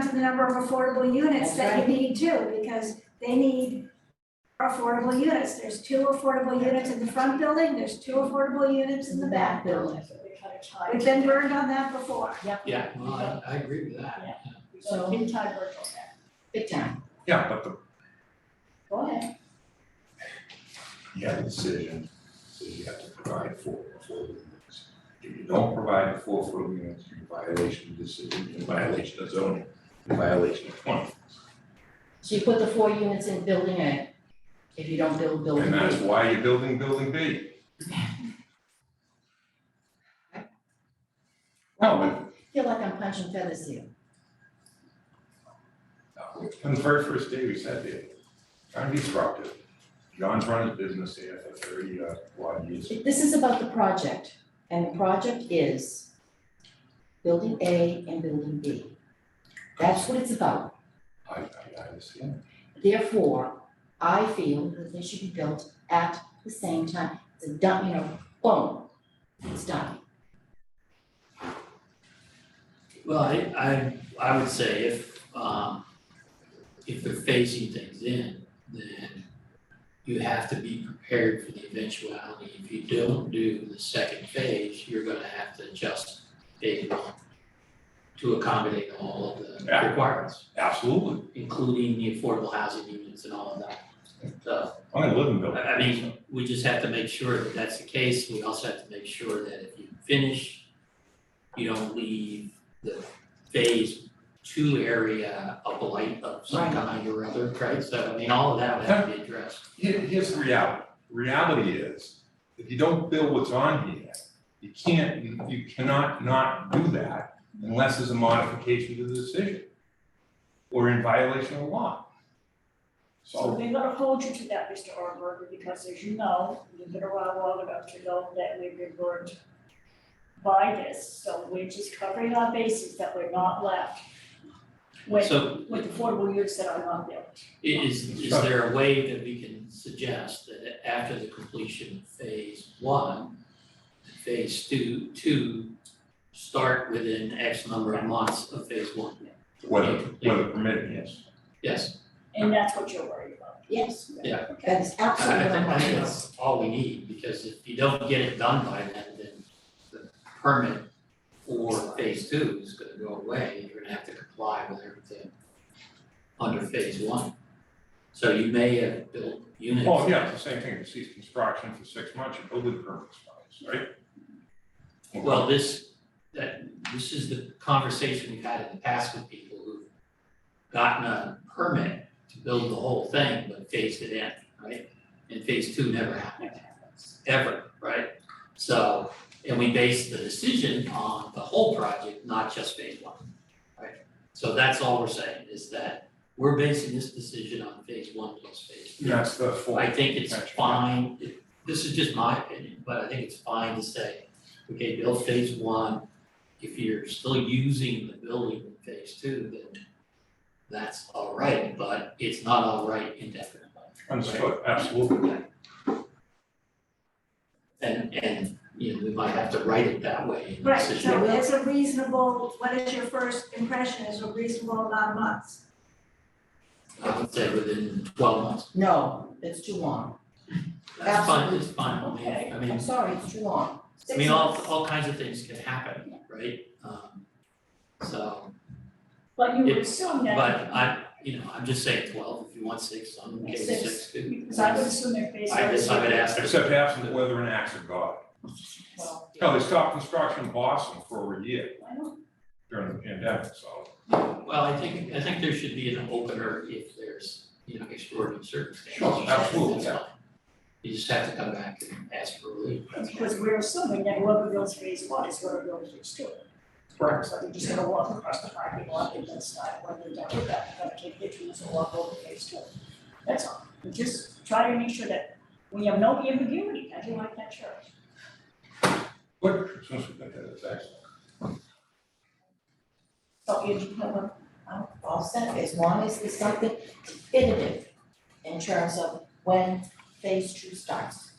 down to the number of affordable units That's that right. you need too, because they need affordable units. There's two affordable units in the front building, there's two affordable units in the back building. We've been burned on that before. Yeah, no, I, I agree with that. So, Big time virtual there. big time, Yeah, but the, go ahead, you have a decision, so you have to provide for affordable units. If you don't provide for affordable units, you're in violation of decision, you're in violation of zoning, you're in violation of twenty. so you put the four units in building A, if you don't build building And B. that's why you're building building B. No, Feel like I'm punching feathers here, but on uh, the very first day we sat there, trying to be disruptive. John's run his business here for thirty uh, odd years. this is about the project, and the project is building A and building B, that's what it's about. I, I, I understand. Therefore, I feel that they should be built at the same time. It's a done, you know, boom, it's done. Well, I, I, I would say if, um, if they're phasing things in, then you have to be prepared for the eventuality. If you don't do the second phase, you're gonna have to adjust phase one to accommodate all of the Yeah. requirements, Absolutely. including the affordable housing units and all of that. So I'm gonna live in Bill. I I mean, we just have to make sure that that's the case, we also have to make sure that if you finish, you don't leave the phase two area a blight of some Right. kind or other, right? So I mean, all of that would have to be addressed. Here, here's the reality. Reality is, if you don't build what's on here, you can't, you- you cannot not do that unless there's a modification to the decision. Or in violation of the law. Oh. So So, they're gonna hold you to that, Mr. Orberg, because as you know, you've been around long enough to know that we've been burned by this, so we're just covering our bases that we're not left with, So with affordable units that are not built. i- is, is there a way that we can suggest that after the completion of phase one, phase two, two, start within X number of months of phase one? whether, whether permitted, yes. Yes, And that's what you're worried about. Yes. Yeah. That is I absolutely think, what I'm I think talking about. that's all we need, because if you don't get it done by then, then the permit for phase two is gonna go away, and you're gonna have to comply with everything under phase one. So you may have built units. Oh, yeah, it's the same thing, you cease construction for six months, your building permit expires, right? Well, this, that, this is the conversation we've had in the past with people who've gotten a permit to build the whole thing, but phased it in, right? And phase two never happened. ever, right? So, and we base the decision on the whole project, not just phase one, right? So that's all we're saying, is that we're basing this decision on phase one plus phase two. That's the full. I think it's potential. fine, it- this is just my opinion, but I think it's fine to say, okay, build phase one. If you're still using the building in phase two, then that's all right, but it's not all right indefinitely. Understood, absolutely. And, and, you know, we might have to write it that way in the Right, decision. so it's a reasonable, what is your first impression is a reasonable amount of months. I would say within twelve months. No, it's too long. That's fine, Absolutely. it's fine, I mean, I I'm mean, sorry, it's too long. I mean, all, all kinds of things can happen, right? Um, So, But you would It- assume but that. I, you know, I'm just saying twelve, if you want six, I'm okay with Six. six, too. Because I would assume they're based on. I guess I would ask her, Except absent weather and acts of God. Well, No, they stopped construction in Boston for over a year I don't, during the pandemic, so. well, I think, I think there should be an opener if there's, you know, extraordinary circumstances. Sure, absolutely, That's yeah. fine. You just have to come back and ask for relief. That's all. because we're assuming that whoever builds phase one is gonna build phase two. Right. So they're just gonna walk across the parking lot and then start, when they're done with that, they're gonna take pictures and walk over phase two. That's all, we just try to make sure that we have no ambiguity, I do like that church. But since we got that, it's excellent. So if you have a, I'm all set, as long as there's something definitive in terms of when phase two starts.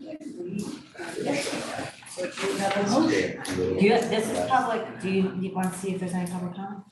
uh, we, So do you have a motion? Do you, this is public, do you, you wanna see if there's any public comment?